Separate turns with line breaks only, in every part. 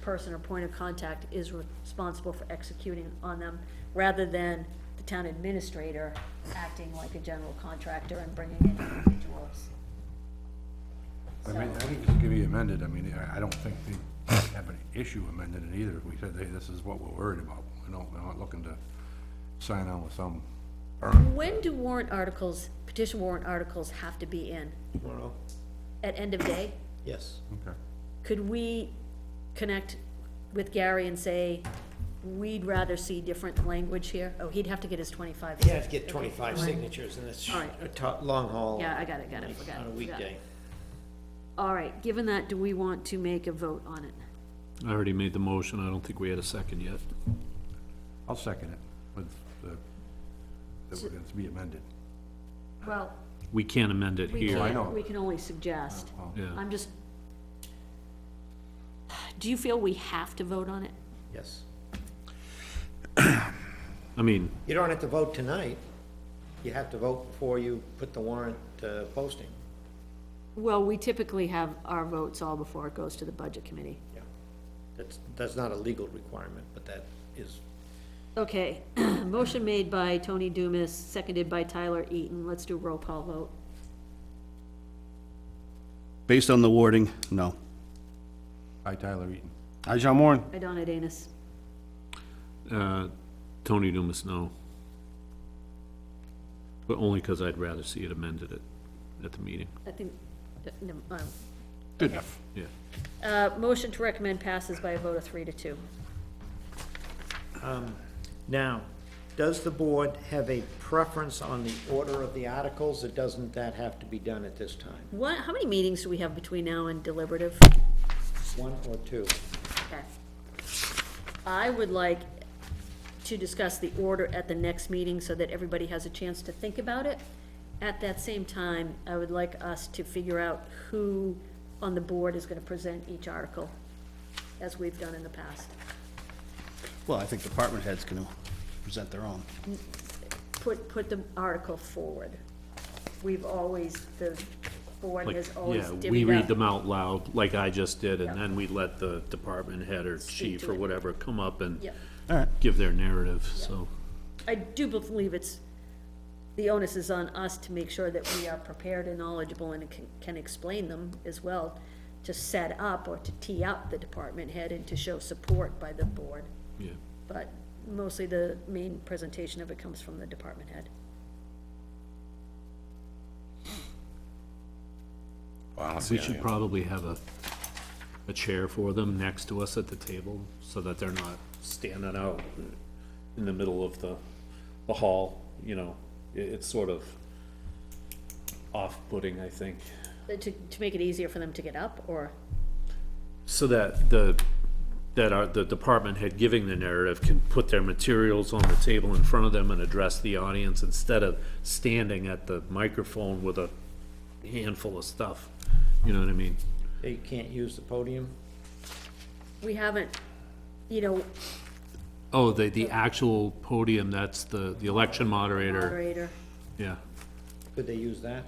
person or point of contact is responsible for executing on them, rather than the town administrator acting like a general contractor and bringing in individuals.
I mean, I think this could be amended, I mean, I, I don't think they have an issue amending it either, if we said, hey, this is what we're worried about, we don't, we're not looking to sign on with some firm.
When do warrant articles, petition warrant articles have to be in?
Tomorrow?
At end of day?
Yes.
Okay.
Could we connect with Gary and say, we'd rather see different language here? Oh, he'd have to get his twenty-five.
You have to get
Okay,
twenty-five
fine.
signatures, and it's
All right.
a to- long haul.
Yeah, I got it, got it,
like,
forgot.
On a
forgot.
weekday.
All right, given that, do we want to make a vote on it?
I already made the motion, I don't think we had a second yet.
I'll second it, with the, that we're gonna be amended.
Well,
We can't amend it
we
here.
I know. Oh,
can't, we can only suggest.
Yeah,
I'm just, do you feel we have to vote on it?
Yes.
I mean,
You don't have to vote tonight. You have to vote before you put the warrant uh, posting.
Well, we typically have our votes all before it goes to the budget committee.
Yeah. That's, that's not a legal requirement, but that is,
Okay, motion made by Tony Dumas, seconded by Tyler Eaton. Let's do a roll call vote.
Based on the wording, no.
Hi, Tyler Eaton.
Hi, Uh, John Moore.
By Donna Danus.
uh, Tony Dumas, no. But only because I'd rather see it amended at, at the meeting,
I think, uh, no, um,
Good enough.
yeah.
uh, motion to recommend passes by a vote of three to two.
now, does the board have a preference on the order of the articles? Or doesn't that have to be done at this time?
What, how many meetings do we have between now and deliberative?
One or two?
Okay. I would like to discuss the order at the next meeting so that everybody has a chance to think about it. At that same time, I would like us to figure out who on the board is gonna present each article, as we've done in the past.
Well, I think department heads can present their own.
Put, put the article forward. We've always, the board
Like,
has always
yeah, we
divvied
read
up.
them out loud, like I just did, and
Yeah.
then we let the department head or
Speak
chief
to
or
it.
whatever come up and
Yeah.
All right.
give their narrative, so.
I do believe it's, the onus is on us to make sure that we are prepared and knowledgeable and can, can explain them as well, to set up or to tee up the department head and to show support by the board.
Yeah,
But mostly the main presentation of it comes from the department head.
we should probably have a, a chair for them next to us at the table, so that they're not standing out in the middle of the, the hall, you know, it, it's sort of off-putting, I think.
But Uh, To, to make it easier for them to get up, or,
So that the, that our, the department head giving the narrative can put their materials on the table in front of them and address the audience instead of standing at the microphone with a handful of stuff, you know what I mean?
They can't use the podium?
we haven't, you know,
Oh, the, the actual podium, that's the, the election moderator,
moderator,
yeah.
Could they use that?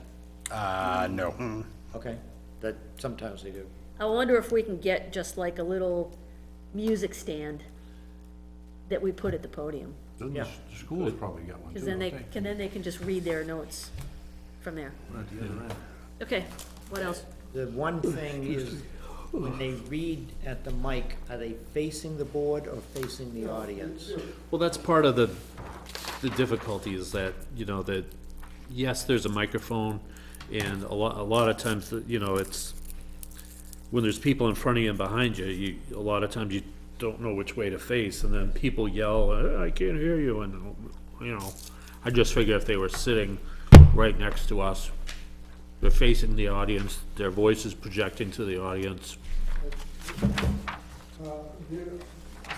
Uh, no.
Okay, that, sometimes they do.
I wonder if we can get just like a little music stand that we put at the podium.
Doesn't the s- the school has probably got one too,
Because then they,
don't they?
can, then they can just read their notes from there.
Right at the other end.
Okay, what else?
The one thing is, when they read at the mic, are they facing the board or facing the audience?
Well, that's part of the, the difficulty is that, you know, that, yes, there's a microphone, and a lot, a lot of times, you know, it's, when there's people in front of you and behind you, you, a lot of times you don't know which way to face, and then people yell, "Uh, I can't hear you, and, you know, I just figure if they were sitting right next to us, they're facing the audience, their voice is projecting to the audience,
Uh, the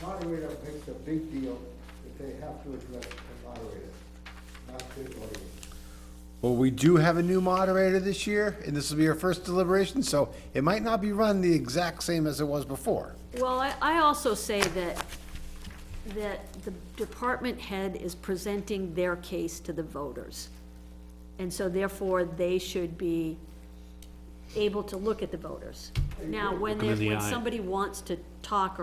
moderator makes a big deal that they have to address the moderator, not the audience.
Well, we do have a new moderator this year, and this will be our first deliberation, so it might not be run the exact same as it was before.
Well, I, I also say that, that the department head is presenting their case to the voters. And so therefore, they should be able to look at the voters. Now, when
Look 'em
there,
in the
when
eye.
somebody wants to talk or